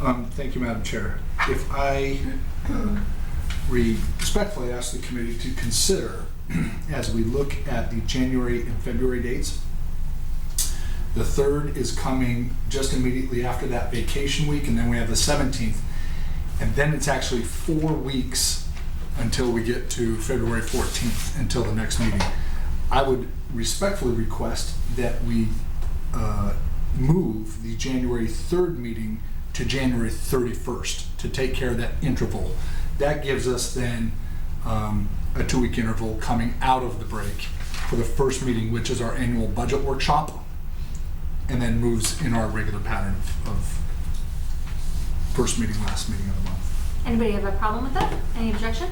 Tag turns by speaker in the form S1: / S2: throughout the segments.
S1: Um, Thank you, Madam Chair. If I uh, re- respectfully ask the committee to consider, as we look at the January and February dates, the 3rd is coming just immediately after that vacation week, and then we have the 17th. And then it's actually four weeks until we get to February 14th, until the next meeting. I would respectfully request that we uh, move the January 3rd meeting to January 31st to take care of that interval. That gives us then um, a two-week interval coming out of the break for the first meeting, which is our annual budget workshop, and then moves in our regular pattern of- of first meeting, last meeting of the month.
S2: Anybody have a problem with that? Any objection?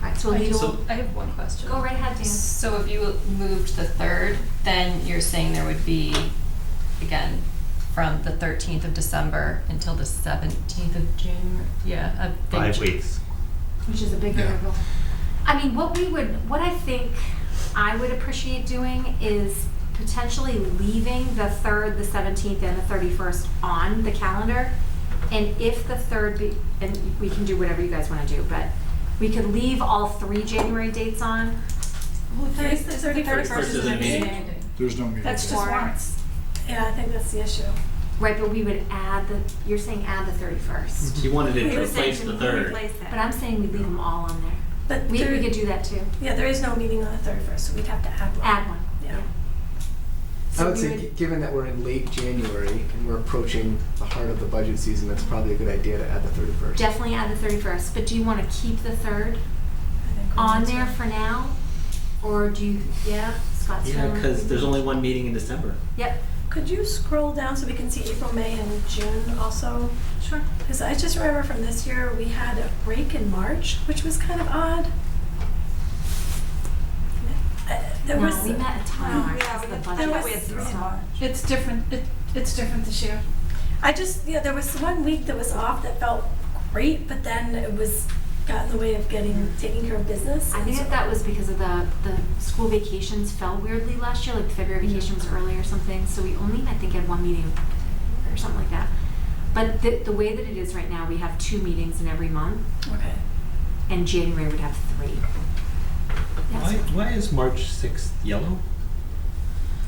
S2: All right, so
S3: Oh,
S2: we'll
S4: I
S2: leave.
S4: just-
S2: Go
S4: I have one question.
S2: right ahead, Dan.
S4: So if you moved the third, then you're saying there would be, again, from the thirteenth of December until the seventeenth of June, yeah, of.
S5: Five weeks.
S2: which is a big
S1: Yeah.
S2: interval. I mean, what we would, what I think I would appreciate doing is potentially leaving the third, the seventeenth, and the thirty-first on the calendar. And if the third be, and we can do whatever you guys wanna do, but we could leave all three January dates on.
S3: Well, thirty, thirty
S5: Thirty-first
S3: first is
S5: is
S3: a
S5: a meeting.
S3: meeting.
S1: There's no meeting.
S3: That's just
S2: Warrants.
S3: warrants. Yeah, I think that's the issue.
S2: Right, but we would add the, you're saying add the thirty-first,
S5: He wanted it
S3: We
S5: to
S3: were saying
S5: replace
S3: to
S5: the third.
S3: replace
S2: but
S3: that.
S2: I'm saying we leave them all on there.
S3: But
S2: We,
S3: there-
S2: we could do that too,
S3: Yeah, there is no meeting on the thirty first, so we'd have to add one.
S2: add one.
S3: Yeah.
S6: I
S2: So
S6: would
S2: we
S6: say, gi- given that we're in late January and we're approaching the heart of the budget season, that's probably a good idea to add the 31st.
S2: Definitely add the thirty-first, but do you wanna keep the third?
S3: I think we
S2: on
S3: need to.
S2: there for now, or do you? Yeah, Scott's.
S5: Yeah, because there's only one meeting in December.
S2: Yep.
S3: Could you scroll down so we can see April, May, and June also?
S2: Sure.
S3: Because I just remember from this year, we had a break in March, which was kind of odd. Uh, There
S2: no,
S3: was.
S2: we met a
S3: No,
S2: time.
S3: yeah,
S2: the
S3: we-
S2: budget.
S3: there was- yeah.
S7: It's different. It, it's different this year.
S3: I just, yeah, there was one week that was off that felt great, but then it was, got in the way of getting, taking care of business.
S2: I think that that was because of the the school vacations fell weirdly last year. Like the February vacation was early or something, so we only I think had one meeting or something like that. But the the way that it is right now, we have two meetings in every month,
S3: Okay.
S2: and January would have three.
S5: Why, why is March 6th yellow?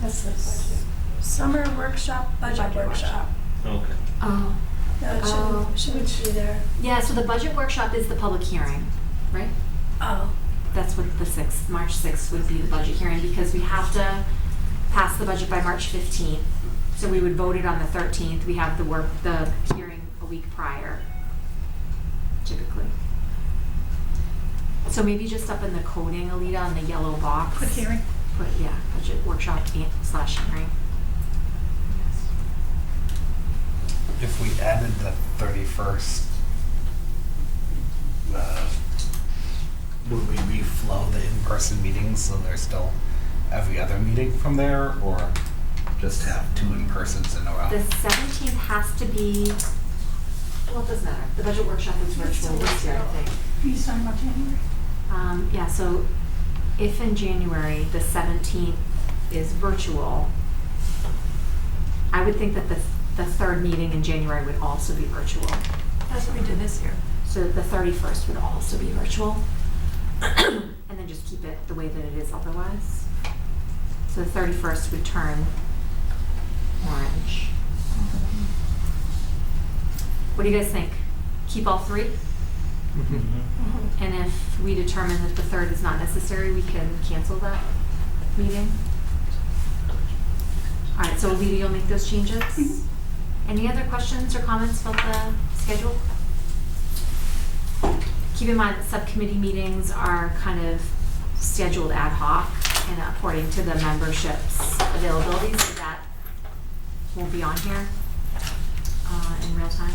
S7: That's the budget.
S3: Summer workshop, budget
S7: Budget
S3: workshop. Um,
S5: Okay.
S2: Oh.
S3: No, it
S2: Oh.
S3: shouldn't, shouldn't be there.
S2: Yeah. So the budget workshop is the public hearing, right?
S3: Oh,
S2: That's what the sixth, March sixth would be the budget hearing, because we have to pass the budget by March fifteenth. So we would vote it on the thirteenth, we have the work, the hearing a week prior, typically. So maybe just up in the coding, Alita, on the yellow box.
S7: Quick hearing.
S2: Put, yeah, budget workshop and- slash hearing.
S8: if we added the thirty-first, uh, would we reflow the in-person meetings so there's still every other meeting from there, or just have two in-persons in a row?
S2: The seventeenth has to be, well, it doesn't matter, the budget workshop is virtual this year, I think.
S7: You signed about January.
S2: Um, yeah, so if in January, the seventeenth is virtual, I would think that the, the third meeting in January would also be virtual.
S3: that's what we did this year.
S2: So the thirty-first would also be virtual. And then just keep it the way that it is otherwise. So the thirty-first would turn orange. What do you guys think? Keep all three? And if we determine that the third is not necessary, we can cancel that meeting? All right, so Alita, you'll make those changes? Any other questions or comments about the schedule? Keep in mind that subcommittee meetings are kind of scheduled ad hoc and according to the membership's availability, so that won't be on here uh, in real time.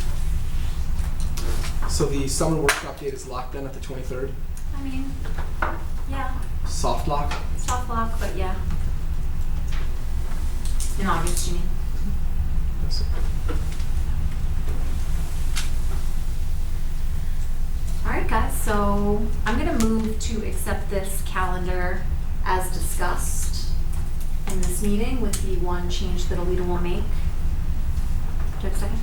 S6: So the summer workshop date is locked in at the 23rd,
S2: I mean, yeah.
S6: soft lock.
S2: Soft lock, but yeah. In August, you mean? All right, guys, so I'm gonna move to accept this calendar as discussed in this meeting with the one change that Alita will make. Do you have a second?